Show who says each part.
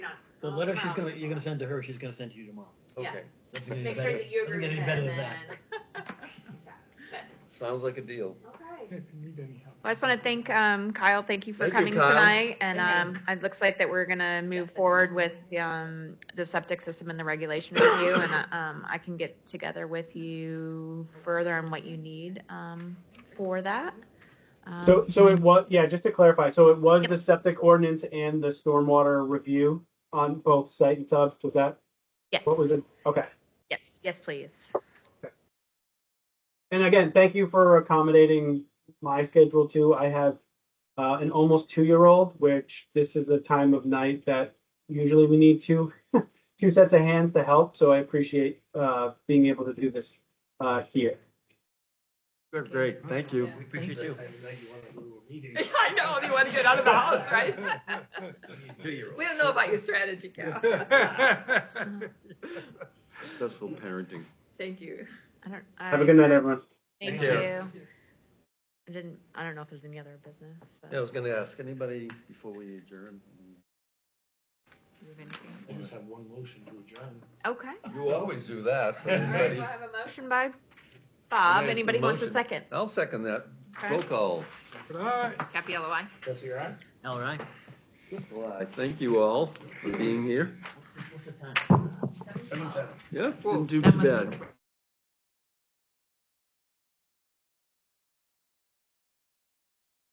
Speaker 1: The
Speaker 2: I'll
Speaker 1: letter
Speaker 2: come
Speaker 1: she's
Speaker 2: out.
Speaker 1: gonna, you're gonna send to her, she's gonna send to you tomorrow.
Speaker 2: Yeah.
Speaker 3: Okay,
Speaker 1: Doesn't get any
Speaker 2: Make sure
Speaker 1: better-
Speaker 2: that you
Speaker 1: doesn't
Speaker 2: agree
Speaker 1: get
Speaker 2: with
Speaker 1: any
Speaker 2: it
Speaker 1: better
Speaker 2: and
Speaker 1: than that.
Speaker 2: then.
Speaker 3: sounds like a deal.
Speaker 2: Okay.
Speaker 4: If you need any help.
Speaker 5: I just want to thank um, Kyle. Thank you for
Speaker 3: Thank you,
Speaker 5: coming
Speaker 3: Kyle.
Speaker 5: tonight. And
Speaker 2: Thank
Speaker 5: um, it looks like that we're going to move
Speaker 2: Septic.
Speaker 5: forward with um, the septic system and the regulation review. And uh, um, I can get together with you further on what you need um, for that. Um,
Speaker 6: So, so it was, yeah, just to clarify, so it was
Speaker 5: Yep.
Speaker 6: the septic ordinance and the stormwater review on both site and sub, was that,
Speaker 5: yes.
Speaker 6: what was it? Okay.
Speaker 5: Yes. Yes, please.
Speaker 6: And again, thank you for accommodating my schedule too. I have uh, an almost two-year-old, which this is a time of night that usually we need two, two sets of hands to help, so I appreciate uh, being able to do this uh, here.
Speaker 3: Good, Great, thank you.
Speaker 1: We appreciate you.
Speaker 2: I know, you want to get out of the house, right? We don't know about your strategy, Cal.
Speaker 3: Successful parenting.
Speaker 2: Thank you.
Speaker 5: I don't, I,
Speaker 6: Have a good night, everyone.
Speaker 5: Thank,
Speaker 3: Thank you.
Speaker 5: you. I didn't. I don't know if there's any other business. so-
Speaker 3: Yeah, I was gonna ask, anybody before we adjourn?
Speaker 4: I just have one motion to adjourn.
Speaker 5: Okay.
Speaker 3: You always do that.
Speaker 2: All right,
Speaker 3: Anybody?
Speaker 2: we'll have a motion.
Speaker 5: Motion by Bob.
Speaker 3: Motion.
Speaker 5: Anybody who wants a
Speaker 3: Motion.
Speaker 5: second?
Speaker 3: I'll second that.
Speaker 5: Okay.
Speaker 3: Roll call.
Speaker 5: Happy yellow eye.
Speaker 4: Jesse, you all right?
Speaker 1: All right.
Speaker 3: Well, I thank you all for being here.
Speaker 1: What's the- What's the time?
Speaker 4: Seven, seven.
Speaker 3: Yeah,
Speaker 5: Whoa,
Speaker 3: didn't do
Speaker 5: that
Speaker 3: too
Speaker 5: must-
Speaker 3: bad.